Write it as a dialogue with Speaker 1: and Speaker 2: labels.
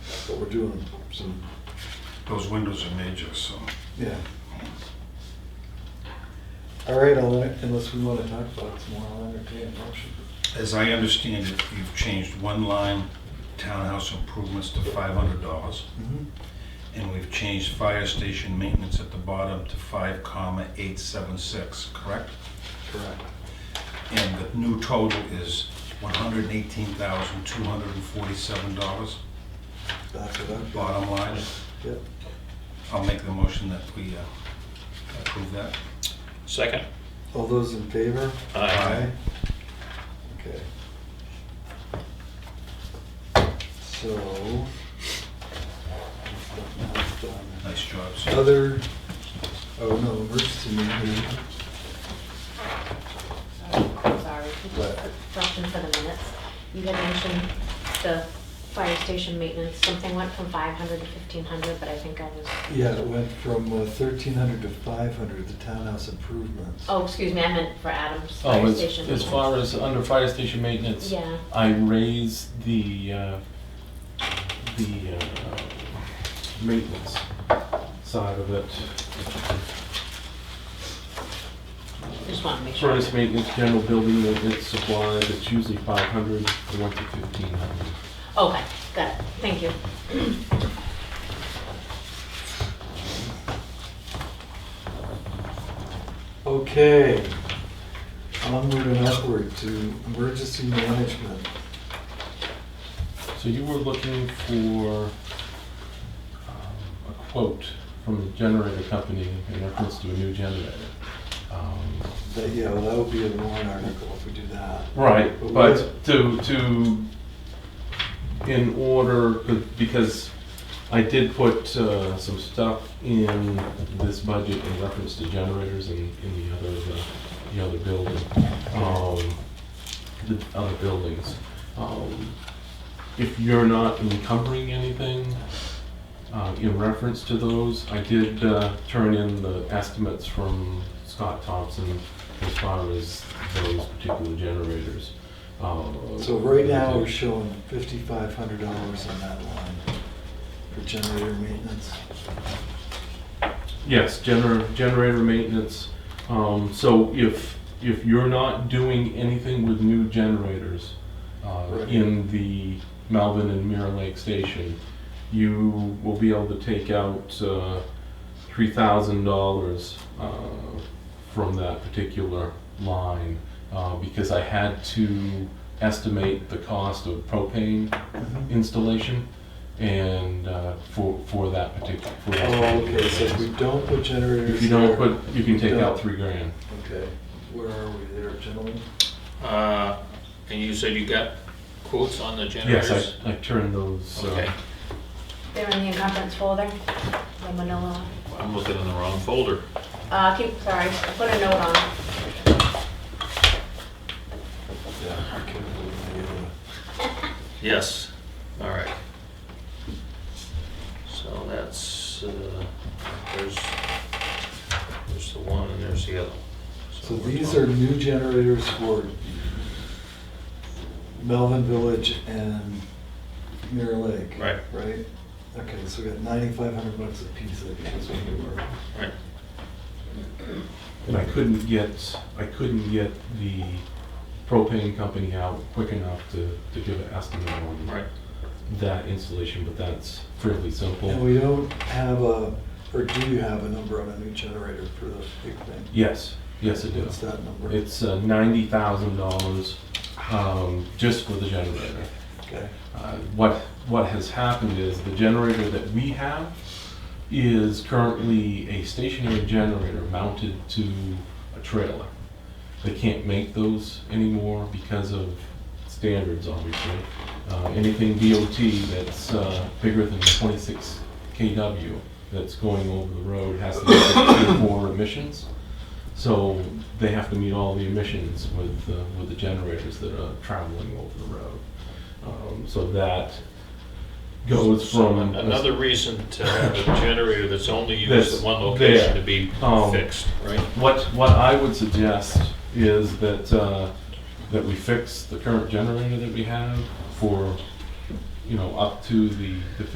Speaker 1: what we're doing, so,
Speaker 2: Those windows are major, so.
Speaker 1: yeah. All right, I'll, unless we want to talk about it some more, I'll entertain a motion.
Speaker 2: As I understand it, you've changed one line, townhouse improvements to five hundred dollars, and we've changed fire station maintenance at the bottom to five comma eight seven six, correct?
Speaker 1: Correct.
Speaker 2: And the new total is one hundred and eighteen thousand, two hundred and forty-seven dollars,
Speaker 1: That's what I'm,
Speaker 2: bottom line.
Speaker 1: yeah.
Speaker 2: I'll make the motion that we uh, approve that.
Speaker 3: Second.
Speaker 1: All those in favor?
Speaker 3: Aye.
Speaker 1: Okay. So. that's done.
Speaker 2: Nice job, sir.
Speaker 1: Other, oh no, emergency management.
Speaker 4: Oh,
Speaker 5: Sorry,
Speaker 1: What?
Speaker 5: just dropped in for the minutes. You had mentioned the fire station maintenance, something went from 500 to 1,500, but I think I was,
Speaker 1: Yeah, it went from uh, 1,300 to 500, the townhouse improvements.
Speaker 5: oh, excuse me, I meant for Adams
Speaker 4: Oh,
Speaker 5: Fire
Speaker 4: as,
Speaker 5: Station.
Speaker 4: as far as under fire station maintenance,
Speaker 5: Yeah.
Speaker 4: I raised the, uh, the, uh, maintenance side of it.
Speaker 5: Just want to make sure.
Speaker 4: Furnace maintenance, general building maintenance, supplies, it's usually five hundred, I went to fifteen hundred.
Speaker 5: Okay, got it, thank you.
Speaker 1: Okay. Onward and upward to emergency management.
Speaker 4: So you were looking for um, a quote from the generator company in reference to a new generator. Um,
Speaker 1: That, yeah, well, that would be a warrant article if we do that.
Speaker 4: Right,
Speaker 1: But
Speaker 4: but to, to, in order, because I did put uh, some stuff in this budget in reference to generators and in the other, uh, the other building, um, the other buildings. Um, If you're not encumbering anything uh, in reference to those, I did uh, turn in the estimates from Scott Thompson as far as those particular generators. Um,
Speaker 1: So right now, we're showing $5,500 on that line for generator maintenance.
Speaker 4: Yes, gener- generator maintenance. Um, so if, if you're not doing anything with new generators, uh,
Speaker 1: Right.
Speaker 4: in the Malvin and Mirror Lake Station, you will be able to take out, uh, three thousand dollars, uh, from that particular line, uh, because I had to estimate the cost of propane installation and, uh, for, for that particular, for that.
Speaker 1: Oh, okay,
Speaker 4: particular
Speaker 1: so if
Speaker 4: case.
Speaker 1: we don't put generators.
Speaker 4: If you don't
Speaker 1: there-
Speaker 4: put, you can take out three grand.
Speaker 1: Okay, where are we there, gentlemen?
Speaker 3: Uh, And you said you got quotes on the generators?
Speaker 4: Yes, I, I turned those,
Speaker 3: Okay,
Speaker 4: uh,
Speaker 5: They're in the encumbrance folder, the manila.
Speaker 3: I'm looking in the wrong folder.
Speaker 5: Uh, keep, sorry, I put a note on it.
Speaker 1: Yeah. okay, we're gonna
Speaker 3: Yes, all right. So that's, uh, there's, there's the one and there's the other.
Speaker 1: get a- So these are new generators for Melvin Village and Mirror Lake.
Speaker 3: Right.
Speaker 1: Right? Okay, so we got ninety-five hundred bucks a piece, I think is what they were.
Speaker 3: Right.
Speaker 4: and I couldn't get, I couldn't get the propane company out quick enough to, to give an estimate on
Speaker 3: Right,
Speaker 4: that installation, but that's fairly
Speaker 1: And
Speaker 4: simple.
Speaker 1: we don't have a, or do you have a number on a new generator for the big thing?
Speaker 4: Yes, yes, it
Speaker 1: What's
Speaker 4: does.
Speaker 1: that number?
Speaker 4: It's uh, ninety thousand dollars, um, just for the generator.
Speaker 1: Okay,
Speaker 4: Uh, What, what has happened is the generator that we have is currently a stationary generator mounted to a trailer. They can't make those anymore because of standards, obviously. Uh, Anything DOT that's uh, bigger than 26 KW that's going over the road has to be Tier 4 emissions. So they have to meet all the emissions with, uh, with the generators that are traveling over the road. Um, So that goes
Speaker 3: so
Speaker 4: from.
Speaker 3: an- another reason to have a generator that's only used
Speaker 4: That's
Speaker 3: at one location
Speaker 4: there.
Speaker 3: to be
Speaker 4: Um,
Speaker 3: fixed, right?
Speaker 4: What, what I would suggest is that, uh, that we fix the current generator that we have for, you know, up to the the